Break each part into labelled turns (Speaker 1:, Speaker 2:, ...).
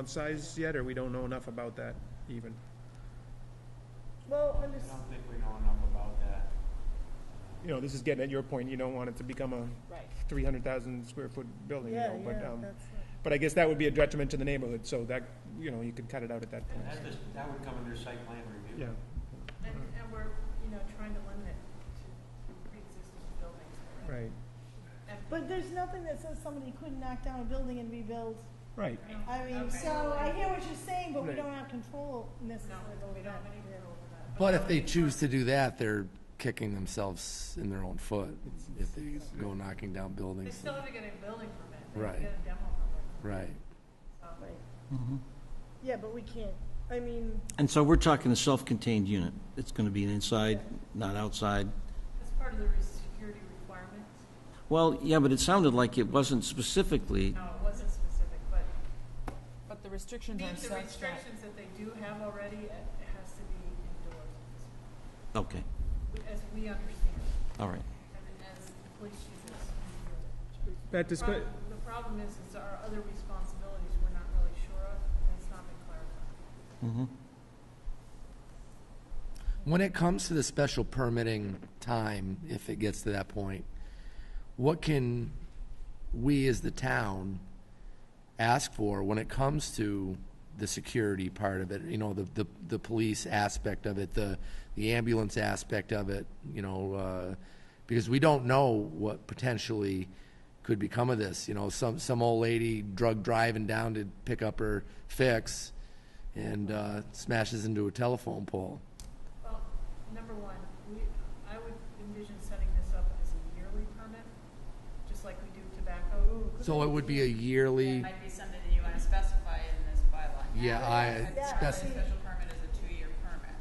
Speaker 1: of size yet, or we don't know enough about that even?
Speaker 2: Well,
Speaker 3: I
Speaker 2: under,
Speaker 3: don't think we know enough about that.
Speaker 1: You know, this is getting at your point, you don't want it to become a
Speaker 2: right,
Speaker 1: three hundred thousand square foot building, you
Speaker 2: yeah,
Speaker 1: know, but,
Speaker 2: yeah,
Speaker 1: um,
Speaker 2: that's,
Speaker 1: but I guess that would be a detriment to the neighborhood, so that, you know, you could cut it out at that
Speaker 3: And
Speaker 1: point.
Speaker 3: that, just- that would come under site plan review.
Speaker 1: Yeah,
Speaker 4: And, and we're, you know, trying to limit it to pre-existing buildings.
Speaker 1: right,
Speaker 4: And-
Speaker 2: but there's nothing that says somebody couldn't knock down a building and rebuild.
Speaker 1: right.
Speaker 2: I mean,
Speaker 4: Okay.
Speaker 2: so I hear what you're saying, but we
Speaker 1: Right.
Speaker 2: don't have control
Speaker 4: No,
Speaker 2: necessarily over
Speaker 4: we don't
Speaker 2: that.
Speaker 4: have any control over that.
Speaker 5: But if they choose to do that, they're kicking themselves in their own foot if they go knocking down
Speaker 4: They
Speaker 5: buildings.
Speaker 4: still have to get a building permit. They have
Speaker 5: Right.
Speaker 4: to get a demo permit.
Speaker 5: Right.
Speaker 4: So-
Speaker 2: Right. Yeah, but we can't, I mean,
Speaker 6: And so we're talking a self-contained unit. It's going to be an inside, not outside.
Speaker 4: That's part of the re- security requirements.
Speaker 6: Well, yeah, but it sounded like it wasn't specifically,
Speaker 4: No, it wasn't specific, but
Speaker 7: But the restrictions are
Speaker 4: meet the
Speaker 7: such that.
Speaker 4: restrictions that they do have already, it it has to be indoors,
Speaker 6: okay,
Speaker 4: as we understand it,
Speaker 6: all right.
Speaker 4: and as the police uses. it.
Speaker 1: That
Speaker 4: The
Speaker 1: display,
Speaker 4: prob- The problem is, is our other responsibilities we're not really sure of, and it's not been clarified.
Speaker 6: Mhm.
Speaker 5: When it comes to the special permitting time, if it gets to that point, what can we as the town ask for when it comes to the security part of it? You know, the, the, the police aspect of it, the, the ambulance aspect of it, you know, uh, because we don't know what potentially could become of this. You know, some, some old lady drug driving down to pick up her fix and, uh, smashes into a telephone pole.
Speaker 4: Well, number one, we, I would envision setting this up as a yearly permit, just like we do tobacco.
Speaker 5: So it would be a yearly,
Speaker 8: Might be something that you want to specify in this bylaw.
Speaker 5: Yeah, I-
Speaker 2: Yeah,
Speaker 8: A
Speaker 2: see-
Speaker 8: special permit is a two-year permit.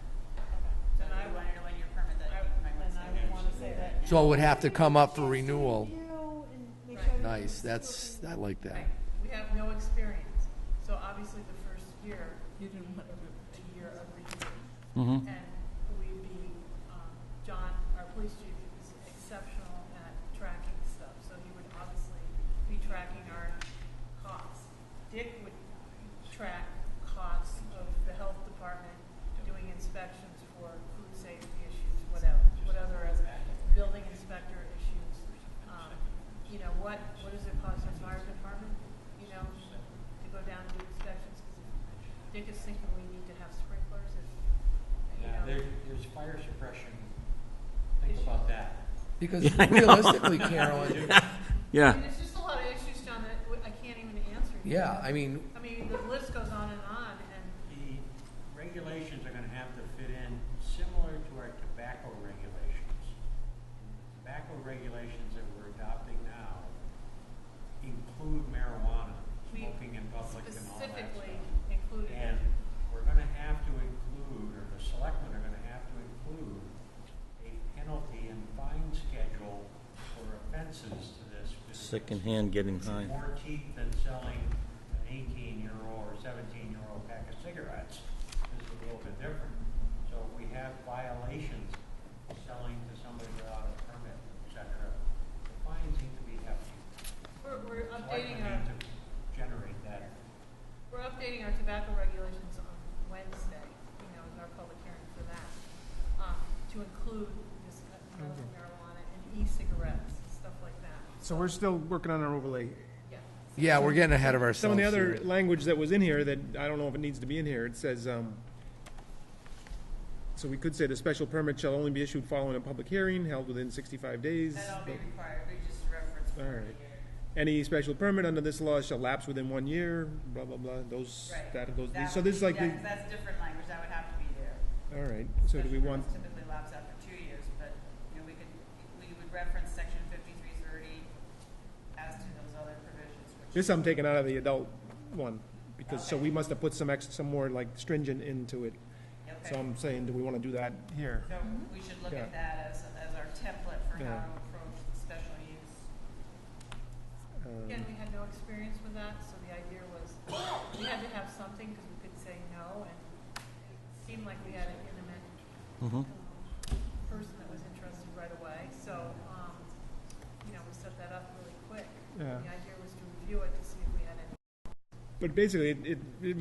Speaker 8: So
Speaker 4: Then
Speaker 8: if
Speaker 4: I
Speaker 8: you wanted a one-year permit, that
Speaker 4: I-
Speaker 8: you might want
Speaker 4: then
Speaker 8: to say.
Speaker 4: I would wanna say that.
Speaker 5: so it would have to come up for renewal.
Speaker 2: Review and make sure everything's
Speaker 5: Nice, that's,
Speaker 2: looking-
Speaker 5: I like that.
Speaker 4: Right, we have no experience, so obviously the first year,
Speaker 7: You didn't want to.
Speaker 4: a year of review,
Speaker 6: Mhm.
Speaker 4: and we'd be, um, John, our police chief is exceptional at tracking stuff, so he would obviously be tracking our costs. Dick would track costs of the health department doing inspections for food safety issues, whatever, what other as building inspector issues. Um, You know, what, what does it cost our fire department, you know, to go down and do inspections? 'Cause Dick is thinking we need to have sprinklers and,
Speaker 3: Yeah,
Speaker 4: you know.
Speaker 3: there, there's fire suppression. Think about that.
Speaker 5: Because realistically,
Speaker 4: I
Speaker 5: Carolyn,
Speaker 4: mean,
Speaker 6: Yeah,
Speaker 4: There's just a lot of issues, John, that w- I can't even answer.
Speaker 5: yeah, I mean,
Speaker 4: I mean, the list goes on and on, and
Speaker 3: The regulations are gonna have to fit in similar to our tobacco regulations. Tobacco regulations that we're adopting now include marijuana,
Speaker 4: We
Speaker 3: smoking in public and all that
Speaker 4: specifically
Speaker 3: stuff.
Speaker 4: included.
Speaker 3: And we're gonna have to include, or the selectmen are gonna have to include, a penalty and fine schedule for offenses to this. because
Speaker 6: secondhand getting
Speaker 3: it's
Speaker 6: high.
Speaker 3: More teeth than selling an eighteen-year-old or seventeen-year-old pack of cigarettes is a little bit different. So if we have violations, selling to somebody without a permit, et cetera, the fines need to be hefty.
Speaker 4: We're, we're updating
Speaker 3: Selectmen
Speaker 4: our,
Speaker 3: need to Generate that.
Speaker 4: we're updating our tobacco regulations on Wednesday, you know, is our public hearing for that, um, to include this uh, medical
Speaker 1: Okay.
Speaker 4: marijuana and e-cigarettes, and stuff like that.
Speaker 1: so we're still working on our overlay.
Speaker 4: Yeah.
Speaker 5: yeah, we're getting ahead of ourselves.
Speaker 1: Some of the other
Speaker 5: here.
Speaker 1: language that was in here that, I don't know if it needs to be in here, it says, um, so we could say the special permit shall only be issued following a public hearing held within sixty-five days.
Speaker 8: That'll be
Speaker 1: but-
Speaker 8: required, we just reference.
Speaker 1: All right. Any special permit under this law shall lapse within one year, blah, blah, blah, those,
Speaker 8: Right.
Speaker 1: that, those,
Speaker 8: That
Speaker 1: so
Speaker 8: would
Speaker 1: this is
Speaker 8: be-
Speaker 1: like, the-
Speaker 8: that- That's different language, that would have to be there.
Speaker 1: all right, so do we
Speaker 8: Special
Speaker 1: want,
Speaker 8: permits Typically lapse after two years, but, you know, we could, we would reference section fifty-three thirty as to those other provisions, which.
Speaker 1: this I'm taking out of the adult one, because, so we must have put some ex, some more like stringent into it.
Speaker 8: Okay.
Speaker 1: So I'm saying, do we wanna do that here?
Speaker 8: So we should look at
Speaker 1: Yeah.
Speaker 8: that as, as our template for
Speaker 1: Yeah.
Speaker 8: how to approach special use.
Speaker 1: Um,
Speaker 4: Again, we had no experience with that, so the idea was, we had to have something, because we could say no, and it seemed like we had an intimate
Speaker 6: Mhm.
Speaker 4: person that was interested right away, so, um, you know, we set that up really quick.
Speaker 1: Yeah.
Speaker 4: The idea was to review it to see if we had any
Speaker 1: But basically, it, it- it